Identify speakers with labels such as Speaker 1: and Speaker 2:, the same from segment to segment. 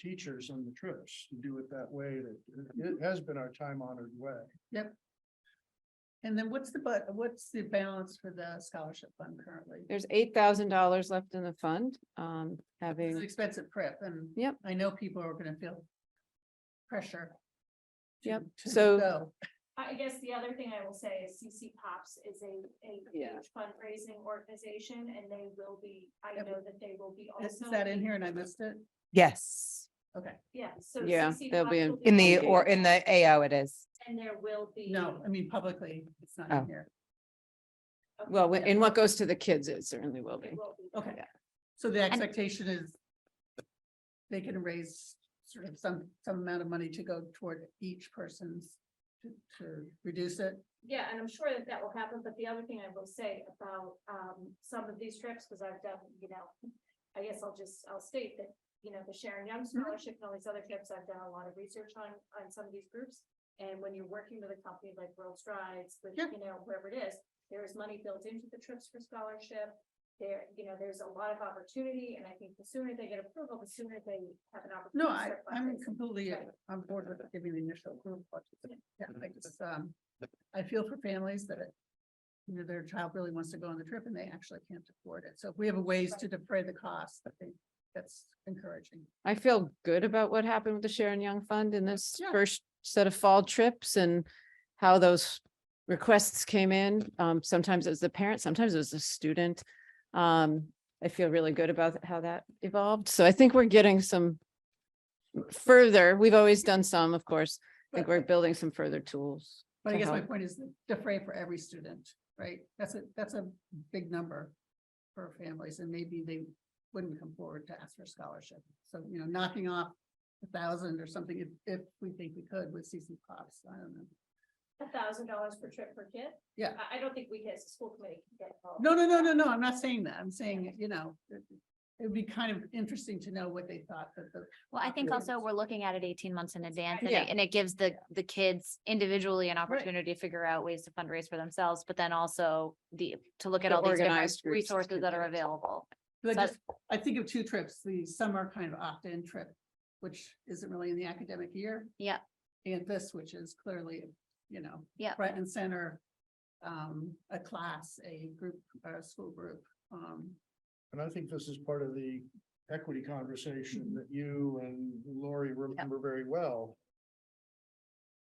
Speaker 1: teachers on the trips, to do it that way, that it has been our time honored way.
Speaker 2: And then what's the, but what's the balance for the scholarship fund currently?
Speaker 3: There's eight thousand dollars left in the fund, um,
Speaker 2: It's an
Speaker 3: having,
Speaker 2: expensive prep and.
Speaker 3: Yep.
Speaker 2: I know people are gonna feel pressure. to-
Speaker 3: Yep,
Speaker 2: to
Speaker 3: so-
Speaker 2: go.
Speaker 4: I guess the other thing I will say is CC Pops is a, a
Speaker 3: Yeah.
Speaker 4: huge fundraising organization and they will be, I
Speaker 2: Yep.
Speaker 4: know that they will be
Speaker 2: Is
Speaker 4: also.
Speaker 2: that in here and I missed it?
Speaker 5: Yes,
Speaker 2: Okay,
Speaker 4: Yeah, so.
Speaker 3: Yeah,
Speaker 4: CC
Speaker 3: they'll be
Speaker 4: Pops
Speaker 3: in-
Speaker 4: will
Speaker 5: in the,
Speaker 4: fundraising,
Speaker 5: or in the AO it is.
Speaker 4: And there will be.
Speaker 2: no, I mean publicly, it's not
Speaker 5: Oh.
Speaker 2: in here.
Speaker 4: Okay,
Speaker 3: well, in what goes to the kids, it certainly will be.
Speaker 4: It will be.
Speaker 2: Okay,
Speaker 3: Yeah.
Speaker 2: so the expectation is they can raise sort of some, some amount of money to go toward each person's to, to reduce it.
Speaker 4: Yeah, and I'm sure that that will happen, but the other thing I will say about, um, some of these trips, because I've done, you know, I guess I'll just, I'll state that, you know, the Sharon Young
Speaker 2: Mm-hmm.
Speaker 4: Scholarship and all these other trips, I've done a lot of research on, on some of these groups. And when you're working with a company like World Strides, with,
Speaker 2: Yeah.
Speaker 4: you know, whoever it is, there is money built into the trips for scholarship. There, you know, there's a lot of opportunity, and I think the sooner they get approval, the sooner they have an opportunity.
Speaker 2: No,
Speaker 4: to
Speaker 2: I,
Speaker 4: start
Speaker 2: I'm
Speaker 4: fundraising.
Speaker 2: completely uh, on board with giving the initial group. what to do. Yeah, I just, um, I feel for families that you know, their child really wants to go on the trip and they actually can't afford it. So if we have a ways to defray the cost, I think that's encouraging.
Speaker 3: I feel good about what happened with the Sharon Young Fund in this
Speaker 2: Yeah.
Speaker 3: first set of fall trips and how those requests came in. Um, sometimes it was the parent, sometimes it was the student. Um, I feel really good about how that evolved. So I think we're getting some further. We've always done some, of course. I think
Speaker 2: But-
Speaker 3: we're building some further tools.
Speaker 2: But I
Speaker 3: to
Speaker 2: guess my
Speaker 3: help.
Speaker 2: point is defray for every student, right? That's a, that's a big number for families and maybe they wouldn't come forward to ask for a scholarship. So, you know, knocking off a thousand or something, if, if we think we could with CC pops, I don't know.
Speaker 4: A thousand dollars per trip per kid?
Speaker 2: Yeah.
Speaker 4: I, I don't think we as a school committee can get involved.
Speaker 2: No, no, no, no, no, I'm not saying that. I'm saying, you know, it it would be kind of interesting to know what they thought that the.
Speaker 6: Well, I think
Speaker 2: Yeah.
Speaker 6: also we're looking at it eighteen months in advance and
Speaker 3: Yeah.
Speaker 6: it, and it gives the, the kids individually an opportunity to figure out ways to fundraise for themselves, but then also the, to look at
Speaker 3: The
Speaker 6: all these different
Speaker 3: organized groups
Speaker 6: resources
Speaker 3: can
Speaker 6: that
Speaker 3: do
Speaker 6: are
Speaker 3: it.
Speaker 6: available.
Speaker 2: But I
Speaker 6: But-
Speaker 2: just, I think of two trips, the summer kind of opt-in trip, which isn't really in the academic year.
Speaker 6: Yeah.
Speaker 2: And this, which is clearly, you know.
Speaker 6: Yeah.
Speaker 2: Front and center, um, a class, a group, a school group, um,
Speaker 1: And I think this is part of the equity conversation that you and Lori remember very well.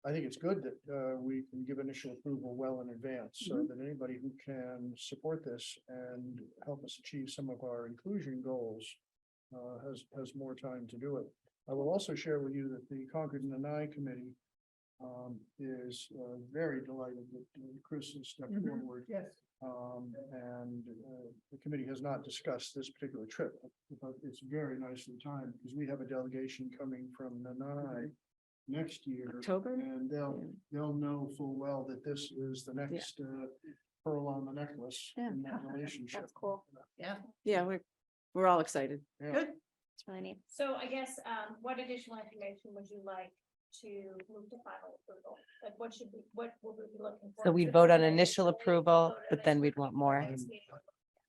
Speaker 1: I think it's good that uh we can give initial approval well in advance, so that anybody who can support this and help us achieve some of our inclusion goals. Uh, has has more time to do it. I will also share with you that the Concord and Nanai Committee. Um, is uh very delighted that uh, Chris has stepped
Speaker 2: Mhm.
Speaker 1: forward
Speaker 2: yes.
Speaker 1: um, and, uh, the committee has not discussed this particular trip, but it's very nicely timed because we have a delegation coming from Nanai next year.
Speaker 3: October?
Speaker 1: And they'll, they'll know full well that this is the next, uh, pearl on the necklace
Speaker 3: Yeah.
Speaker 1: in that relationship.
Speaker 4: That's cool.
Speaker 3: Yeah, we're, we're all excited.
Speaker 1: Yeah.
Speaker 2: Good.
Speaker 6: It's really neat.
Speaker 4: So I guess, um, what additional information would you like to move to final approval? Like what should we, what would we be looking for?
Speaker 5: So we'd vote on initial approval, but then we'd want more.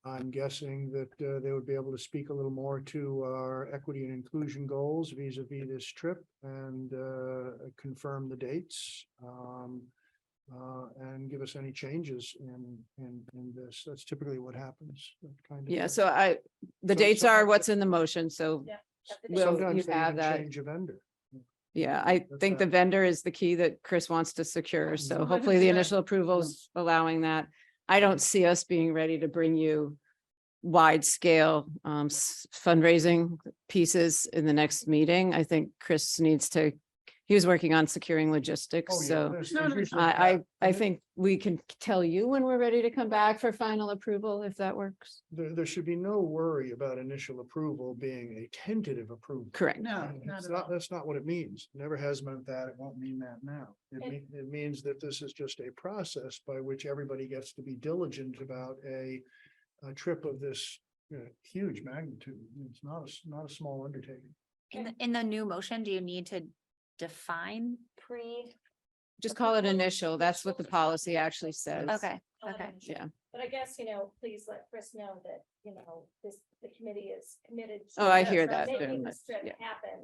Speaker 1: I'm guessing that, uh, they would be able to speak a little more to our equity and inclusion goals vis a vis this trip and, uh, confirm the dates. Um, uh, and give us any changes in, in, in this. That's typically what happens. that kind of
Speaker 3: Yeah,
Speaker 1: thing.
Speaker 3: so I, the
Speaker 1: So-
Speaker 3: dates
Speaker 1: so-
Speaker 3: are what's in the motion. So
Speaker 4: Will
Speaker 3: Will you
Speaker 1: Sometimes they
Speaker 3: have
Speaker 1: even
Speaker 3: that?
Speaker 1: change a vendor.
Speaker 3: Yeah, I
Speaker 1: That's
Speaker 3: think the
Speaker 1: that.
Speaker 3: vendor is the key that Chris wants to secure, so
Speaker 1: Mhm.
Speaker 3: hopefully the
Speaker 2: 100%.
Speaker 3: initial approvals allowing that. I don't see us being ready to bring you wide scale um s- fundraising pieces in the next meeting. I think Chris needs to, he was working on securing logistics,
Speaker 1: Oh, yeah, Mm-hmm.
Speaker 3: so
Speaker 1: there's-
Speaker 2: No,
Speaker 1: there's
Speaker 2: no,
Speaker 1: usually a
Speaker 3: I
Speaker 1: path.
Speaker 3: I I
Speaker 1: And
Speaker 3: think we can tell you when we're ready to come back for final approval, if that works.
Speaker 1: There, there should be no worry about initial approval being a tentative approval.
Speaker 3: Correct.
Speaker 2: No,
Speaker 1: It's
Speaker 2: not at
Speaker 1: not-
Speaker 2: all.
Speaker 1: Mm, That's not what it means. Never has meant that. It won't mean that now. It mean,
Speaker 4: And-
Speaker 1: it means that this is just a process by which everybody gets to be diligent about a, a trip of this you know, huge magnitude. It's not, a s- not a small undertaking.
Speaker 6: In, the- in the new motion, do you need to define pre?
Speaker 3: Just call it initial. That's what the policy actually says.
Speaker 6: Okay, okay.
Speaker 3: Yeah.
Speaker 4: But I guess, you know, please let Chris know that, you know, this, the committee is committed. to
Speaker 3: Oh, I hear
Speaker 4: making
Speaker 3: that very
Speaker 4: this
Speaker 3: much,
Speaker 4: trip
Speaker 3: yeah.
Speaker 4: Happen